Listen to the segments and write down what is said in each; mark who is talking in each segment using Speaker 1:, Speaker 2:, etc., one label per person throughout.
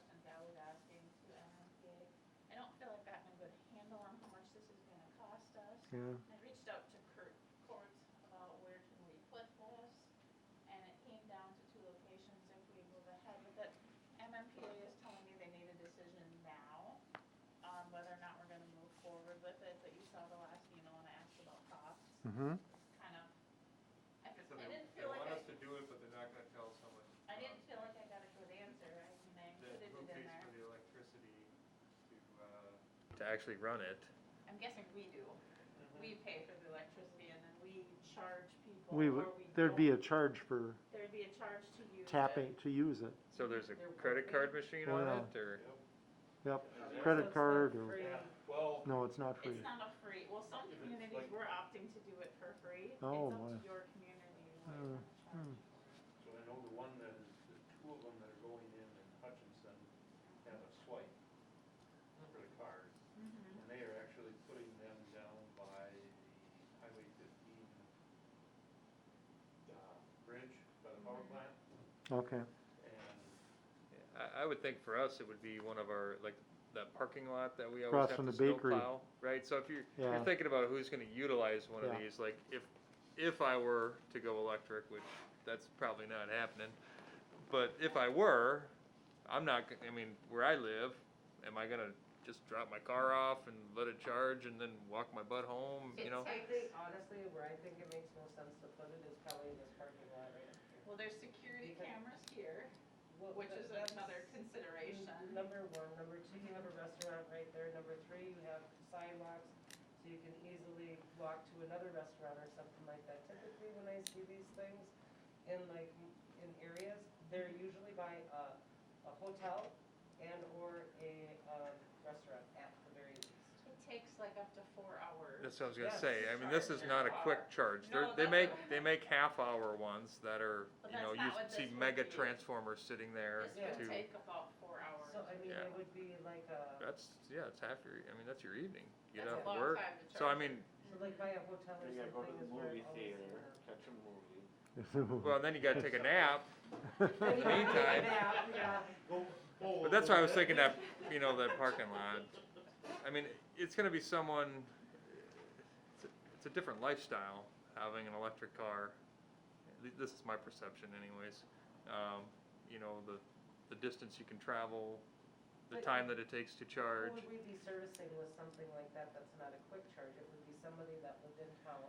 Speaker 1: um,
Speaker 2: yeah.
Speaker 1: I reached out to Kurt Court about where can we put this, and it came down to two locations if we move ahead with it. MMPA is telling me they need a decision now on whether or not we're gonna move forward with it, but you saw the last email and I asked about costs,
Speaker 2: Mm-hmm.
Speaker 1: kind of. I
Speaker 3: So
Speaker 1: I
Speaker 3: they,
Speaker 1: didn't
Speaker 3: they
Speaker 1: feel like I,
Speaker 3: want us to do it, but they're not gonna tell someone.
Speaker 1: I
Speaker 3: um,
Speaker 1: didn't feel like I got a good answer, I mean, I
Speaker 3: That
Speaker 1: included
Speaker 3: who
Speaker 1: it in
Speaker 3: pays
Speaker 1: there.
Speaker 3: for the electricity to, uh,
Speaker 4: to actually run it.
Speaker 1: I'm guessing we do. We pay for the electricity and then we charge people.
Speaker 2: We
Speaker 1: or
Speaker 2: would, there'd be a
Speaker 1: don't.
Speaker 2: charge for
Speaker 1: There'd be a charge to use it.
Speaker 2: tapping, to use it.
Speaker 4: So there's a
Speaker 1: There would
Speaker 4: credit
Speaker 1: be.
Speaker 4: card machine on
Speaker 2: Yeah.
Speaker 4: it, or
Speaker 2: Yep,
Speaker 3: Yeah.
Speaker 1: So
Speaker 2: credit
Speaker 1: it's not
Speaker 2: card or,
Speaker 1: free.
Speaker 3: Yeah, well,
Speaker 2: no, it's not
Speaker 1: It's
Speaker 2: free.
Speaker 1: not a free, well, some
Speaker 3: If it's
Speaker 1: communities
Speaker 3: like-
Speaker 1: were opting to do it for free.
Speaker 2: Oh,
Speaker 1: It's
Speaker 2: my.
Speaker 1: up to your community. what
Speaker 2: Uh,
Speaker 1: you wanna
Speaker 2: hmm.
Speaker 1: charge.
Speaker 5: So I know the one that is, the two of them that are going in in Hutchinson have a swipe for the cars.
Speaker 1: Mhm.
Speaker 5: And they are actually putting them down by the Highway fifteen, uh, bridge by the
Speaker 1: Mm-hmm.
Speaker 5: power plant.
Speaker 2: Hmm. Okay,
Speaker 5: And
Speaker 4: I, I would think for us it would be one of our like that parking lot that we always
Speaker 2: Across
Speaker 4: have
Speaker 2: from
Speaker 4: to
Speaker 2: the bakery.
Speaker 4: snowplow, right? So if you're
Speaker 2: Yeah.
Speaker 4: you're thinking about who's going to utilize one
Speaker 2: Yeah.
Speaker 4: of these, like if if I were to go electric, which that's probably not happening, but if I were, I'm not. g- I mean, where I live, am I going to just drop my car off and let it charge and then walk my butt home? You know,
Speaker 1: It's-
Speaker 6: I think honestly, where I think it makes most sense to put it is probably in this parking lot right up here.
Speaker 1: Well, there's security
Speaker 6: Because-
Speaker 1: cameras here,
Speaker 6: Well,
Speaker 1: which
Speaker 6: but
Speaker 1: is
Speaker 6: that's
Speaker 1: another consideration.
Speaker 6: Number one, number two, you have a restaurant right there, number three, you have sidewalks, so you can easily walk to another restaurant or something like that. Typically, when I see these things in like, in areas, they're usually by a, a hotel and or a, um, restaurant at the very least.
Speaker 1: It takes like up to four hours.
Speaker 4: that's what I was going to
Speaker 6: Yes.
Speaker 4: say. I mean, this is not a quick charge. They're,
Speaker 1: No,
Speaker 4: they
Speaker 1: that's
Speaker 4: make
Speaker 1: what-
Speaker 4: they make half hour ones that are
Speaker 1: But
Speaker 4: you know
Speaker 1: that's
Speaker 4: you
Speaker 1: not what
Speaker 4: see
Speaker 1: this would
Speaker 4: mega
Speaker 1: be.
Speaker 4: transformers sitting there.
Speaker 1: This would
Speaker 4: to-
Speaker 1: take about four hours.
Speaker 6: So, I mean,
Speaker 4: Yeah.
Speaker 6: it would be like a,
Speaker 4: That's yeah, it's half your. I mean, that's your evening. You get
Speaker 1: That's
Speaker 4: off
Speaker 1: a long
Speaker 4: work.
Speaker 1: time to
Speaker 4: So I
Speaker 1: charge
Speaker 4: mean,
Speaker 6: so like by a hotel or
Speaker 7: You gotta go to
Speaker 6: something
Speaker 7: the
Speaker 6: is where
Speaker 7: movie
Speaker 6: it always
Speaker 7: theater,
Speaker 6: ends.
Speaker 7: catch a movie.
Speaker 4: well, then you got to take a nap.
Speaker 6: Then you have to take a
Speaker 4: Meantime.
Speaker 6: nap, yeah.
Speaker 5: go forward.
Speaker 4: But that's why I was thinking that you know that parking lot. I mean, it's going to be someone. It's a, it's a different lifestyle having an electric car. At lea- This is my perception, anyways. Um, you know the the distance you can travel, the
Speaker 6: But-
Speaker 4: time that it takes to charge.
Speaker 6: Who would we be servicing with something like that that's not a quick charge? It would be somebody that lived in town,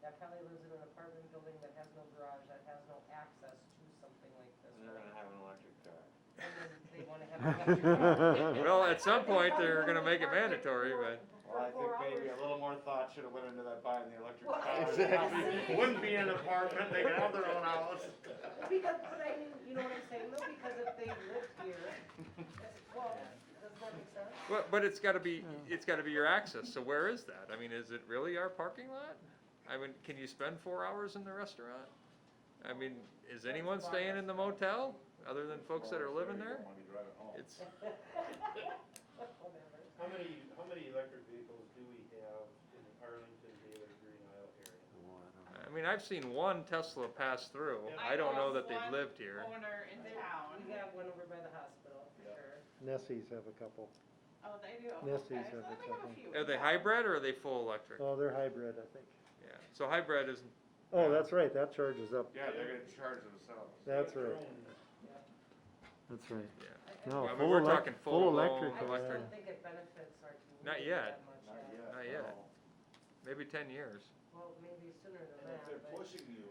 Speaker 6: that probably lives in an apartment building that has no garage, that has no access to something like this.
Speaker 7: And they're gonna have an electric car.
Speaker 6: And then they wanna have an electric car.
Speaker 4: Well, at some
Speaker 6: They
Speaker 4: point
Speaker 6: probably
Speaker 4: they're
Speaker 6: wanna
Speaker 4: going to make it
Speaker 6: park there
Speaker 4: mandatory,
Speaker 6: for-
Speaker 4: but.
Speaker 6: for
Speaker 7: Well, I think
Speaker 6: four
Speaker 7: maybe a
Speaker 6: hours.
Speaker 7: little more thought should've went into that buying the electric
Speaker 6: Well,
Speaker 7: car.
Speaker 6: exactly.
Speaker 7: Wouldn't be an apartment, they could have their own house.
Speaker 6: Because, but I mean, you know what I'm saying, though, because if they lived here, that's- well, does that make sense?
Speaker 4: Well, but it's gotta be, it's gotta be your access, so where is that? I mean, is it really our parking lot? I mean, can you spend four hours in the restaurant? I mean, is anyone staying in the motel, other than folks that are living there? It's,
Speaker 6: Whatever.
Speaker 5: How many, how many electric vehicles do we have in the Arlington, Baylor, Green Isle area?
Speaker 4: I mean, I've seen one Tesla pass through, I don't know that they've lived here.
Speaker 1: Owner in town.
Speaker 6: We got one over by the hospital, for sure.
Speaker 2: Nestle's have a couple.
Speaker 1: Oh, they do?
Speaker 2: Yes,
Speaker 1: Okay,
Speaker 2: these
Speaker 1: so
Speaker 2: are
Speaker 1: they
Speaker 2: the
Speaker 1: have a
Speaker 2: couple.
Speaker 1: few.
Speaker 4: Are they
Speaker 1: Yeah.
Speaker 4: hybrid or are they full electric?
Speaker 2: Oh, they're hybrid, I think.
Speaker 4: Yeah, so hybrid is,
Speaker 2: Oh, that's right, that charges up.
Speaker 7: Yeah, they're gonna charge themselves.
Speaker 2: That's
Speaker 5: Their
Speaker 2: right,
Speaker 5: own
Speaker 2: that's right.
Speaker 6: I- I
Speaker 2: No,
Speaker 4: I mean,
Speaker 2: full
Speaker 4: we're
Speaker 2: elec-
Speaker 4: talking full
Speaker 2: full
Speaker 4: blown
Speaker 2: electric,
Speaker 6: I just
Speaker 4: electric.
Speaker 2: uh,
Speaker 6: don't think it benefits our community
Speaker 4: Not yet.
Speaker 6: that much,
Speaker 7: Not
Speaker 6: yeah.
Speaker 7: yet.
Speaker 4: Not yet.
Speaker 7: no.
Speaker 4: maybe ten years.
Speaker 6: Well, maybe sooner than
Speaker 8: And
Speaker 6: that,
Speaker 8: if they're
Speaker 6: but-
Speaker 8: pushing you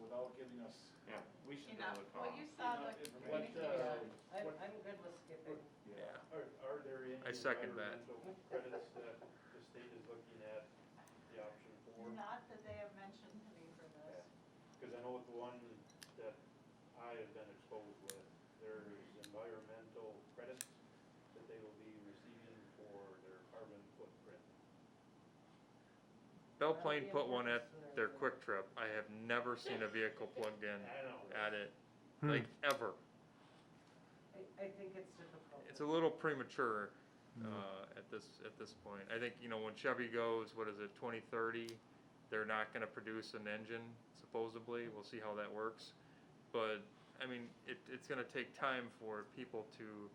Speaker 8: without giving us
Speaker 7: Yeah, we should be
Speaker 1: Enough,
Speaker 7: able to
Speaker 1: well,
Speaker 7: talk.
Speaker 1: you saw the
Speaker 8: What,
Speaker 1: communication.
Speaker 8: uh,
Speaker 6: I'm,
Speaker 8: what,
Speaker 6: I'm good with skipping.
Speaker 4: Yeah,
Speaker 5: Are, are there any
Speaker 4: I second that.
Speaker 5: environmental credits that the state is looking at the option for?
Speaker 1: Not that they have mentioned to me for this.
Speaker 5: Cause I know with the one that I have been exposed with, there's environmental credits that they will be receiving for their carbon footprint.
Speaker 4: Belle Plaine put one at their Quick Trip, I have never seen a vehicle plugged in
Speaker 5: I know.
Speaker 4: at it,
Speaker 2: Hmm.
Speaker 4: like, ever.
Speaker 6: I, I think it's difficult.
Speaker 4: It's a little premature uh, at this at this point. I think you know when Chevy goes, what is it, 2030? They're not going to produce an engine supposedly. We'll see how that works, but I mean it, it's going to take time for people to